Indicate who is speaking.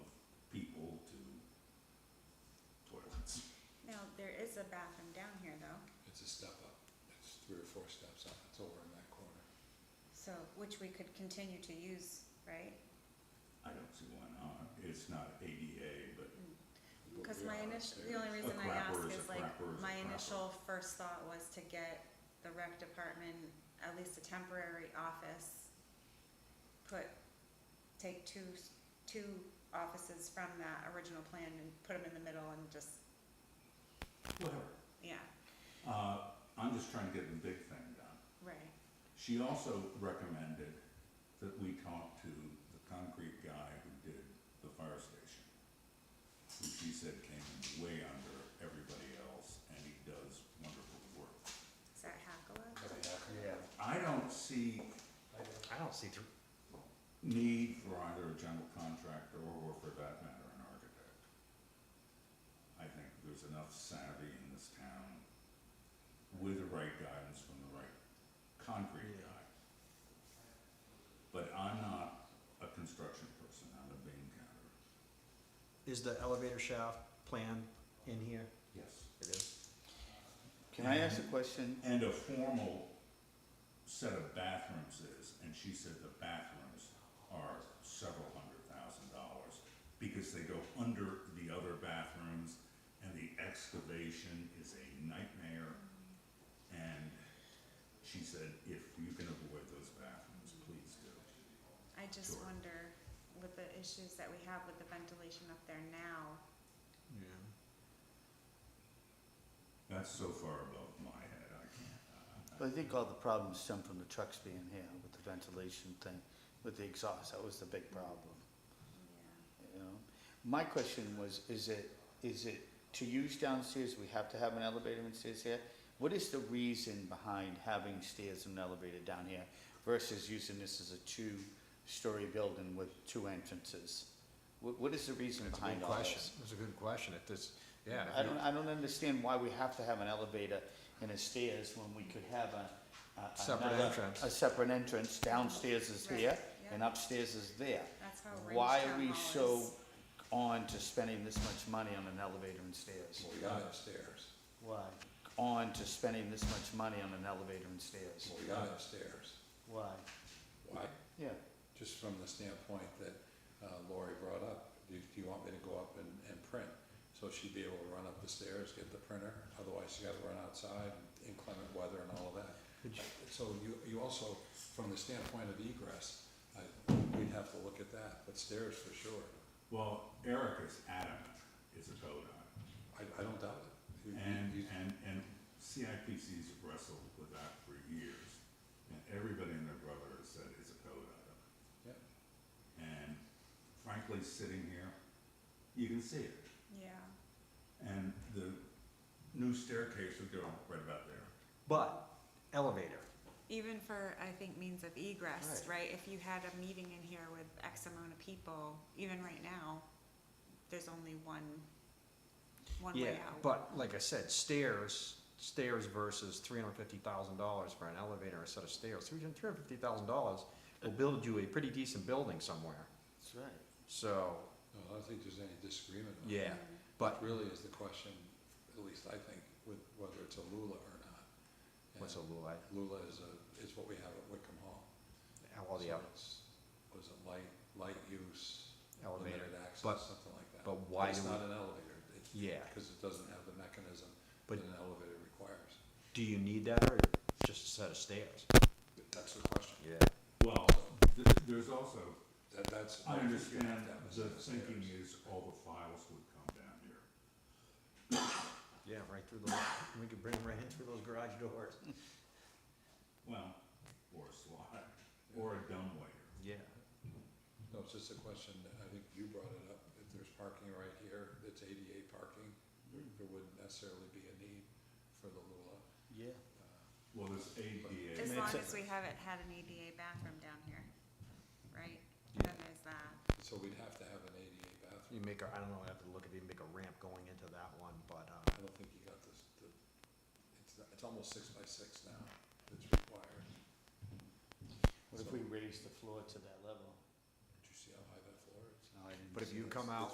Speaker 1: four steps up, it's over in that corner.
Speaker 2: So, which we could continue to use, right?
Speaker 3: I don't see why not. It's not ADA, but
Speaker 1: But
Speaker 2: Because
Speaker 1: we
Speaker 2: my
Speaker 1: are
Speaker 2: initial, the
Speaker 1: upstairs.
Speaker 2: only reason I
Speaker 3: crapper
Speaker 2: ask
Speaker 3: is a
Speaker 2: is like,
Speaker 3: crapper is a
Speaker 2: my
Speaker 3: crapper.
Speaker 2: initial first thought was to get the rec department, at least a temporary office. Put, take two, s- two offices from that original plan and put them in the middle and just,
Speaker 3: whatever.
Speaker 2: yeah,
Speaker 3: Uh, I'm just trying to get the big thing done.
Speaker 2: right,
Speaker 3: She also recommended that we talk to the concrete guy who did the fire station, who she said came way under everybody else, and he does wonderful work.
Speaker 2: is that Hackala?
Speaker 1: But
Speaker 4: Yeah,
Speaker 1: yeah,
Speaker 3: I don't see
Speaker 1: I don't-
Speaker 4: I don't see through,
Speaker 3: need for either a general contractor or for that matter, an architect. I think there's enough savvy in this town with the right guidance from the right concrete
Speaker 4: Yeah.
Speaker 3: guy. But I'm not a construction person, I'm a bean counter.
Speaker 4: is the elevator shaft plan in here?
Speaker 3: Yes.
Speaker 4: It is.
Speaker 5: Can I ask a question?
Speaker 3: And a formal set of bathrooms is, and she said the bathrooms are several hundred thousand dollars because they go under the other bathrooms and the excavation is a nightmare. And she said, if you can avoid those bathrooms, please do.
Speaker 2: I just
Speaker 3: Sure.
Speaker 2: wonder with the issues that we have with the ventilation up there now,
Speaker 4: Yeah.
Speaker 3: That's so far above my head, I can't. uh,
Speaker 5: I think all the problems stem from the trucks being here with the ventilation thing, with the exhaust, that was the big problem,
Speaker 2: yeah,
Speaker 5: you know? My question was, is it, is it to use downstairs, we have to have an elevator and stairs here? What is the reason behind having stairs and an elevator down here versus using this as a two-story building with two entrances? What, what is the reason
Speaker 6: That's a
Speaker 5: behind
Speaker 6: good
Speaker 5: all
Speaker 6: question.
Speaker 5: this?
Speaker 6: That's a good question. If this, yeah. if
Speaker 5: I
Speaker 6: you-
Speaker 5: don't, I don't understand why we have to have an elevator and a stairs when we could have a. a-
Speaker 6: Separate
Speaker 5: another-
Speaker 6: entrance.
Speaker 5: A separate entrance, downstairs is
Speaker 2: Right,
Speaker 5: here
Speaker 2: yeah.
Speaker 5: and upstairs is there.
Speaker 2: that's how Ridge
Speaker 5: Why are
Speaker 2: Town
Speaker 5: we
Speaker 2: Hall
Speaker 5: so
Speaker 2: is.
Speaker 5: on to spending this much money on an elevator and stairs?
Speaker 1: Well, we got upstairs,
Speaker 5: Why? On to spending this much money on an elevator and stairs?
Speaker 1: well, we got upstairs.
Speaker 5: Why?
Speaker 1: Why?
Speaker 5: Yeah,
Speaker 1: Just from the standpoint that uh, Lori brought up, do you- do you want me to go up and, and print? So she'd be able to run up the stairs, get the printer, otherwise she gotta run outside, inclement weather and all of that. So you, you also, from the standpoint of egress, I, we'd have to look at that, but stairs for sure,
Speaker 3: Well, Eric is adamant, is a code on it.
Speaker 1: I, I don't doubt it. You- you-
Speaker 3: And,
Speaker 1: you-
Speaker 3: and, and CIPC's wrestled with that for years, and everybody and their brother has said it's a code item.
Speaker 1: Yeah.
Speaker 3: And frankly, sitting here, you can see it.
Speaker 2: Yeah.
Speaker 3: And the new staircase would go right about there.
Speaker 4: But elevator,
Speaker 2: Even for, I think, means of egress, right? If you had a meeting in here with X amount of people, even right now, there's only one, one
Speaker 4: yeah,
Speaker 2: way out.
Speaker 6: But like I said, stairs, stairs versus three hundred fifty thousand dollars for an elevator or a set of stairs. Three hundred fifty thousand dollars will build you a pretty decent building somewhere.
Speaker 5: that's right.
Speaker 6: So,
Speaker 1: No, I don't think there's any disagreement on that.
Speaker 6: yeah, but
Speaker 1: Really is the question, at least I think, with whether it's a Lula or not.
Speaker 6: what's a
Speaker 1: And
Speaker 6: little, I-
Speaker 1: Lula is a, is what we have at Wickham Hall.
Speaker 6: all the
Speaker 1: So
Speaker 6: other,
Speaker 1: it's- Was it light, light use,
Speaker 6: elevator,
Speaker 1: limited access,
Speaker 6: but-
Speaker 1: something like that?
Speaker 6: but why
Speaker 1: It's
Speaker 6: do
Speaker 1: not
Speaker 6: we-
Speaker 1: an elevator, it's,
Speaker 6: yeah.
Speaker 1: because it doesn't have the mechanism that
Speaker 6: But-
Speaker 1: an elevator requires.
Speaker 6: Do you need that or just a set of stairs?
Speaker 1: That's the question.
Speaker 6: Yeah.
Speaker 3: Well, th- there's also,
Speaker 1: That, that's.
Speaker 3: I understand
Speaker 1: that was
Speaker 3: the
Speaker 1: upstairs.
Speaker 3: thinking is all the files would come down here.
Speaker 6: Yeah, right through the, we could bring them right in through those garage doors.
Speaker 3: Well, or a slide, or a dumb waiter.
Speaker 6: Yeah.
Speaker 1: No, it's just a question, that I think you brought it up, if there's parking right here, it's ADA parking, there there wouldn't necessarily be a need for the uh, Lula.
Speaker 5: Yeah.
Speaker 3: Well, there's ADA.
Speaker 2: As
Speaker 5: Makes
Speaker 2: long
Speaker 5: sense.
Speaker 2: as we haven't had an ADA bathroom down here, right?
Speaker 6: Yeah.
Speaker 2: Then there's that.
Speaker 1: So we'd have to have an ADA
Speaker 6: You
Speaker 1: bathroom,
Speaker 6: make a, I don't know, I have to look at, you make a ramp going into that one, but, uh,
Speaker 1: I don't think you got this, the, it's, not- it's almost six by six now, that's required.
Speaker 5: What if we raise the floor to that level?
Speaker 1: Did you see how high that floor is?
Speaker 5: No, I didn't
Speaker 6: But if
Speaker 5: see
Speaker 6: you
Speaker 5: this.
Speaker 6: come out